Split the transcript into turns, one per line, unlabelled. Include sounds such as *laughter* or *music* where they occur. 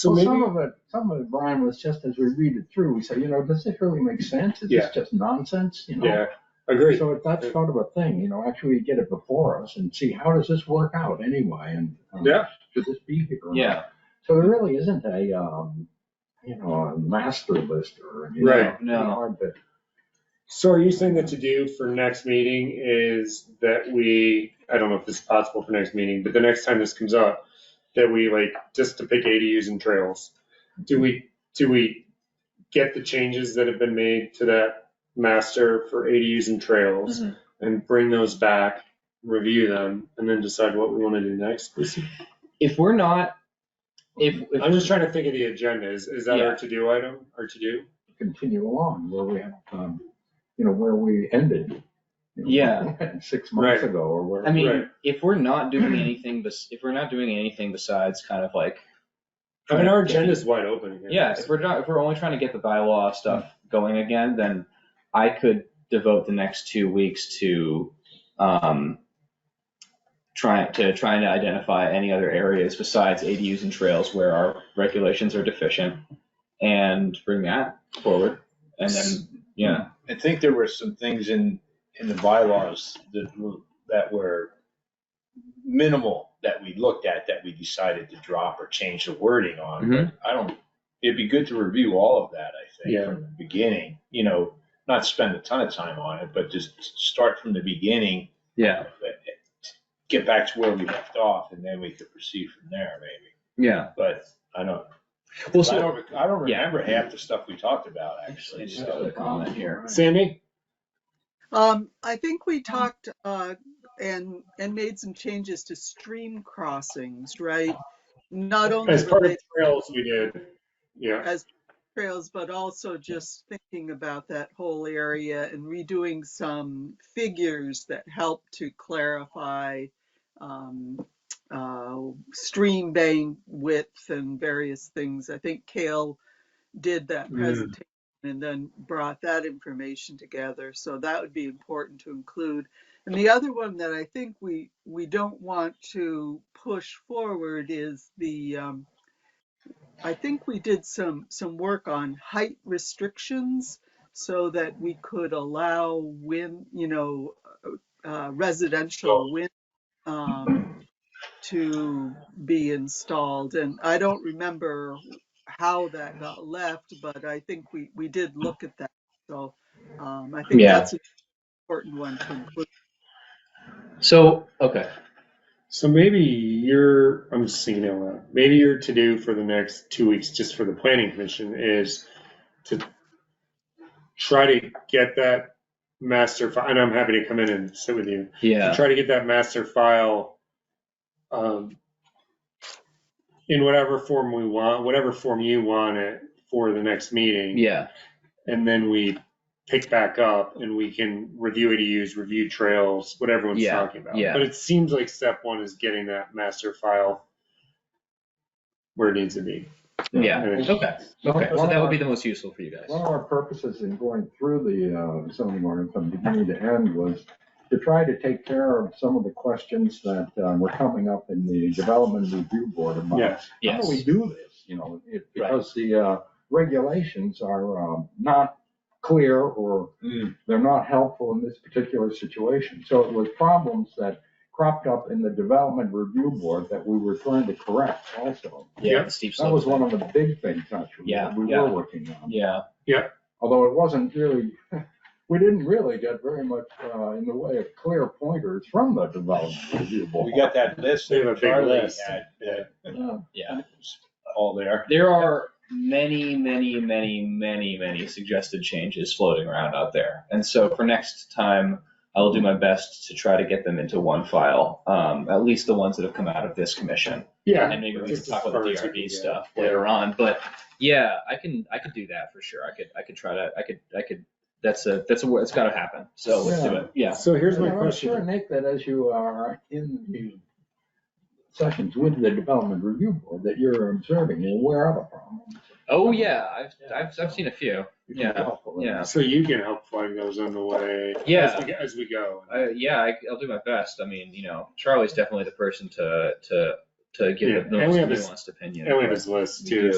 So
Well,
maybe,
some of it, some of it, Brian, was just as we read it through, we say, you know, does this really make sense? Is
Yeah.
this just nonsense, you know?
Yeah, agreed.
So that's sort of a thing, you know, actually get it before us and see how does this work out anyway and. um,
Yeah.
Should this be here? or not?
yeah,
So there really isn't a, um, you know, a master list or, you know.
Right.
it's hard to-
So are you saying that to do for next meeting is that we, I don't know if this is possible for next meeting, but the next time this comes up, that we like, just to pick ADUs and trails, do we, do we get the changes that have been made to that master for ADUs and trails
Mhm.
and bring those back, review them, and then decide what we want to do next?
if we're not, if,
I'm just
if,
trying to think of the agenda. Is, is that
Yeah.
our to-do item, our to-do?
continue along where we have, um, you know, where we ended. you know, *laughs*
Yeah.
Six months
Right.
ago or where.
I mean,
Right.
if we're not
*clears throat*
doing anything, bes- if we're not doing anything besides kind of like,
I mean, our agenda's wide open here.
yeah, if we're not, if we're only trying to get the bylaw stuff
Mm.
going again, then I could devote the next two weeks to, um, trying, to trying to identify any other areas besides ADUs and trails where our regulations are deficient and bring that forward. And then, yeah.
I think there were some things in, in the bylaws that, were- that were minimal that we looked at that we decided to drop or change the wording on.
Mhm.
But I don't, it'd be good to review all of that, I think,
Yeah.
from the beginning, you know, not spend a ton of time on it, but just start from the beginning.
Yeah.
but Get back to where we left off and then we could proceed from there maybe.
Yeah.
But I don't,
Well,
I
so
don't, I don't
Yeah.
remember half the stuff we talked about actually,
Just
so.
a comment here.
Sandy?
Um, I think we talked, uh, and, and made some changes to stream crossings, right? Not only
As part of
related
trails, we did, yeah.
as trails, but also just thinking about that whole area and redoing some figures that help to clarify, um, uh, stream bank width and various things. I think Kale did that
Mm.
presentation and then brought that information together. So that would be important to include. And the other one that I think we, we don't want to push forward is the, um, I think we did some, some work on height restrictions so that we could allow wind, you know, uh, residential wind, um, to be installed. And I don't remember how that got left, but I think we, we did look at that. So, um, I think
Yeah.
that's an important one to include.
So, okay.
So maybe your, I'm just thinking out loud, maybe your to-do for the next two weeks, just for the planning commission, is to try to get that master file, and I'm happy to come in and sit with you, to
Yeah.
try to get that master file um, in whatever form we want, whatever form you want it for the next meeting.
Yeah.
and then we pick back up and we can review ADUs, review trails, what everyone's
Yeah,
talking about.
yeah.
But it seems like step one is getting that master file where it needs to be.
Yeah.
And it-
Okay. Okay. So that would be the most useful for you guys.
One of our purposes in going through the uh, zoning ordinance from beginning to end was to try to take care of some of the questions that um, were coming up in the development review board about.
Yeah.
How do we
Yes.
do this, you know, it-
Right.
because the uh, regulations are um, not clear or
Mm.
they're not helpful in this particular situation. So it was problems that cropped up in the development review board that we were trying to correct also.
Yeah. the Steep
That
slope.
was one of the big things actually
Yeah,
that we
yeah.
were working on
Yeah.
although it wasn't really, *laughs* we didn't really get very much uh, in the way of clear pointers from the development review board.
We got that list
We have a
that
big
Charlie
list.
had, uh,
Yeah.
Yeah.
all there.
There are many, many, many, many, many suggested changes floating around out there. And so for next time, I will do my best to try to get them into one file, um, at least the ones that have come out of this commission.
Yeah.
And maybe we can
Just
talk
as
about
far
the
as we can
DRB
get.
stuff
Yeah.
later on, but yeah, I can, I could do that for sure. I could, I could try to, I could, I could, that's a, that's a, it's gotta happen. So let's do it. Yeah.
So here's my
And I'm sure,
question.
Nick, that as you are in the sessions with the development review board, that you're observing and aware of the problems.
Oh, yeah. I've, I've, I've seen a few.
It can be
Yeah,
helpful.
yeah.
So you can help flag those on the way.
Yeah.
As we, as we go.
I, yeah, I, I'll do my best. I mean, you know, Charlie's definitely the person to to to give
Yeah,
the
and we
most
have this-
nuanced opinion.
And we have his list too,